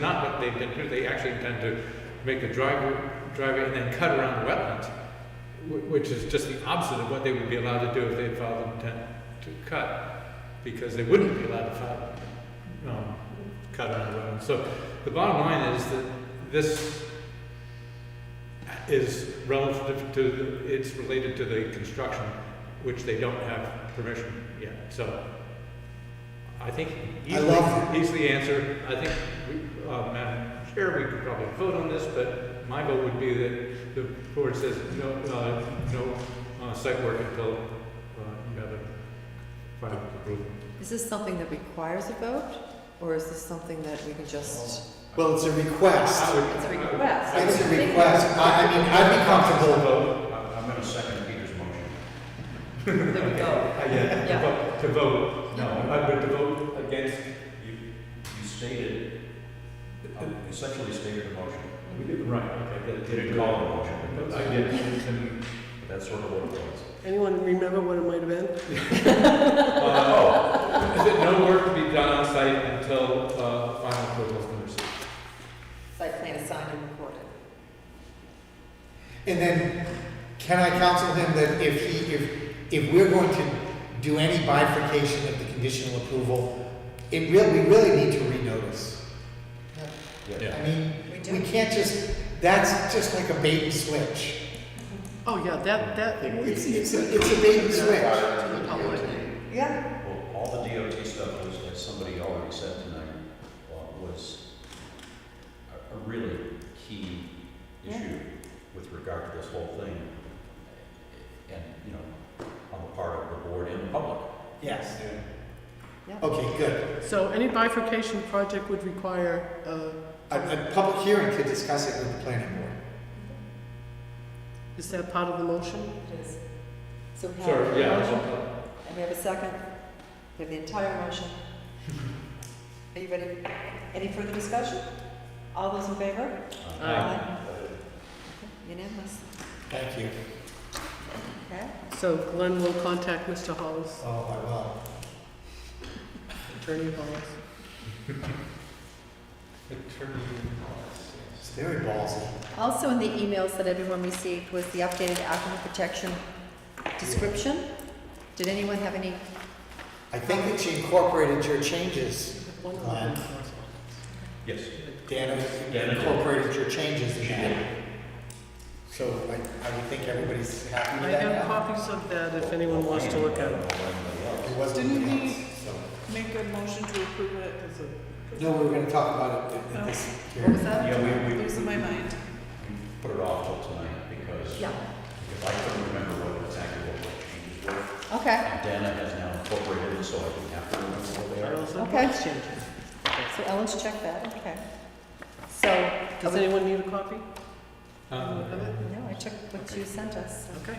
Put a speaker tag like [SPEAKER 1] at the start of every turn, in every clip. [SPEAKER 1] Not what they intend to do, they actually intend to make a driveway, driveway and then cut around the wetlands, wh- which is just the opposite of what they would be allowed to do if they filed an intent to cut, because they wouldn't be allowed to file, um, cut around the wetlands. So the bottom line is that this is relative to, the- it's related to the construction, which they don't have permission yet, so. I think
[SPEAKER 2] I
[SPEAKER 1] easily,
[SPEAKER 2] love
[SPEAKER 1] easily answer, I think, we- uh, Madam Chair, we could probably vote on this, but my vote would be that the board says no, uh, no, uh, site work until, uh, you have a final approval.
[SPEAKER 3] Is this something that requires a vote, or is this something that we can just?
[SPEAKER 2] Well, it's a request.
[SPEAKER 3] It's a request.
[SPEAKER 2] It's a request. I, I mean, I'd be comfortable.
[SPEAKER 1] vote.
[SPEAKER 4] I'm going to second Peter's motion.
[SPEAKER 3] There we go.
[SPEAKER 1] Yeah, to
[SPEAKER 3] Yeah.
[SPEAKER 1] vote, to vote,
[SPEAKER 4] No,
[SPEAKER 1] I would to vote against,
[SPEAKER 4] you, you stated, you essentially stated a motion.
[SPEAKER 1] we did, right, okay.
[SPEAKER 4] You
[SPEAKER 1] that-
[SPEAKER 4] didn't call it a motion, but
[SPEAKER 1] But I
[SPEAKER 4] that's,
[SPEAKER 1] did, and,
[SPEAKER 4] but that's sort of what it was.
[SPEAKER 5] Anyone remember what it might have been?
[SPEAKER 1] uh, Is it no work to be done on site until uh, final approval has been received?
[SPEAKER 3] Site plan is signed and recorded.
[SPEAKER 2] And then, can I counsel him that if he, if, if we're going to do any bifurcation of the conditional approval, it really, we really need to renotice. I mean,
[SPEAKER 3] We
[SPEAKER 2] we
[SPEAKER 3] do.
[SPEAKER 2] can't just, that's just like a bait and switch.
[SPEAKER 5] Oh, yeah, that, that,
[SPEAKER 2] It's, it's, a- it's a bait and switch.
[SPEAKER 3] Yeah.
[SPEAKER 4] Well, all the DOT stuff was, as somebody already said tonight, uh, was a, a really key issue with regard to this whole thing. And, you know, on the part of the board and the public.
[SPEAKER 2] Yes.
[SPEAKER 3] Yeah.
[SPEAKER 5] Oh.
[SPEAKER 2] Okay, good.
[SPEAKER 5] so any bifurcation project would require, uh,
[SPEAKER 2] A, a public hearing to discuss it with the planning board.
[SPEAKER 5] is that part of the motion?
[SPEAKER 3] It is. So we have,
[SPEAKER 1] Sorry, yeah.
[SPEAKER 3] and we have a second, we have the entire motion. Are you ready? Any further discussion? All those in favor?
[SPEAKER 4] Uh,
[SPEAKER 5] Aye.
[SPEAKER 3] Unanimous.
[SPEAKER 2] Thank you.
[SPEAKER 3] Okay.
[SPEAKER 5] So Glenn will contact Mr. Hollis,
[SPEAKER 2] Oh, I will.
[SPEAKER 5] Attorney Hollis.
[SPEAKER 1] Attorney
[SPEAKER 2] It's very ballsy.
[SPEAKER 3] Also in the emails that everyone received was the updated aquifer protection description. Did anyone have any?
[SPEAKER 2] I think that she incorporated your changes, Glenn.
[SPEAKER 4] Yes.
[SPEAKER 2] Dana
[SPEAKER 4] Dana did.
[SPEAKER 2] incorporated your changes in that. So I, I would think everybody's happy
[SPEAKER 5] I
[SPEAKER 2] with that
[SPEAKER 5] have
[SPEAKER 2] now.
[SPEAKER 5] copies of that if anyone wants to look at it.
[SPEAKER 2] It wasn't
[SPEAKER 6] Didn't we-
[SPEAKER 2] announced, so.
[SPEAKER 6] Make a motion to approve it as a,
[SPEAKER 2] No, we were gonna talk about it at- at this
[SPEAKER 3] What was
[SPEAKER 2] hearing.
[SPEAKER 3] that?
[SPEAKER 4] Yeah, we, we,
[SPEAKER 6] losing my mind.
[SPEAKER 4] we put it off till tonight because
[SPEAKER 3] Yeah,
[SPEAKER 4] if I couldn't remember what exactly what the changes were,
[SPEAKER 3] okay.
[SPEAKER 4] and Dana has now incorporated it, so I didn't have to remember what they are.
[SPEAKER 5] Charles and
[SPEAKER 3] Okay.
[SPEAKER 5] Exchange.
[SPEAKER 3] So Ellen's checked that, okay. So, I
[SPEAKER 5] Does
[SPEAKER 3] would-
[SPEAKER 5] anyone need a copy
[SPEAKER 1] Uh,
[SPEAKER 5] of it?
[SPEAKER 3] no, I checked what you sent us.
[SPEAKER 5] Okay.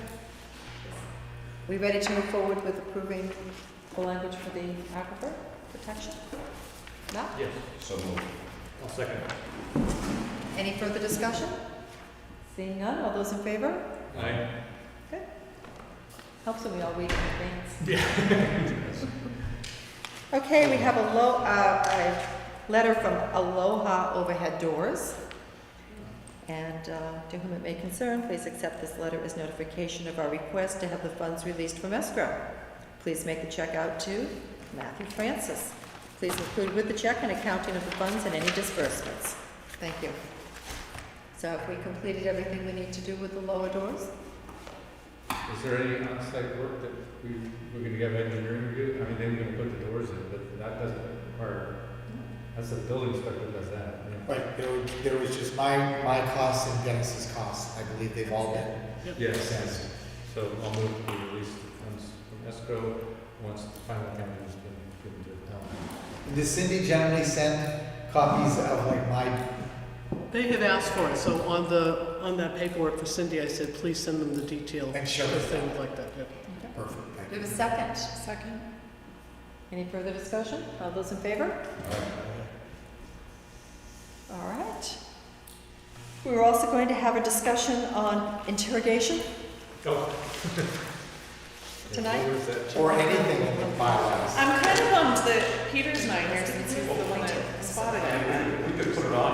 [SPEAKER 3] We ready to move forward with approving the language for the aquifer protection? No?
[SPEAKER 1] Yes,
[SPEAKER 4] So moved.
[SPEAKER 1] I'll second.
[SPEAKER 3] Any further discussion? Seeing none, all those in favor?
[SPEAKER 1] Aye.
[SPEAKER 3] Helps when we all read in advance.
[SPEAKER 1] Yeah.
[SPEAKER 3] Okay, we have a low, uh, a letter from Aloha Overhead Doors. And uh, to whom it may concern, please accept this letter as notification of our request to have the funds released from escrow. Please make the check out to Matthew Francis. Please include with the check an accounting of the funds and any disbursements. Thank you. So have we completed everything we need to do with the lower doors?
[SPEAKER 1] Is there any on-site work that we, we're gonna have engineering do? I mean, they were gonna put the doors in, but that doesn't require, that's the building inspector does that. yeah.
[SPEAKER 2] But there was, there was just my, my costs and Dennis's costs. I believe they've all been
[SPEAKER 1] Yes,
[SPEAKER 2] assessed.
[SPEAKER 1] so I'll move to release the funds from escrow once the final accounting has been given to the town.
[SPEAKER 2] Does Um, Cindy generally send copies of like my,
[SPEAKER 5] They had asked for it, so on the, on that paperwork for Cindy, I said, please send them the detail
[SPEAKER 2] and show
[SPEAKER 5] for
[SPEAKER 2] us that?
[SPEAKER 5] things like that, yeah.
[SPEAKER 2] Perfect,
[SPEAKER 3] We
[SPEAKER 2] thank
[SPEAKER 3] have a
[SPEAKER 2] you.
[SPEAKER 3] second.
[SPEAKER 6] Second?
[SPEAKER 3] Any further discussion? All those in favor? All right. We were also going to have a discussion on interrogation.
[SPEAKER 1] Oh.
[SPEAKER 3] Tonight?
[SPEAKER 1] Where's that?
[SPEAKER 2] Or anything in the bylaws.
[SPEAKER 6] I'm kind of bummed that Peter's not here since he's the one that spotted it.
[SPEAKER 4] We've been could put it on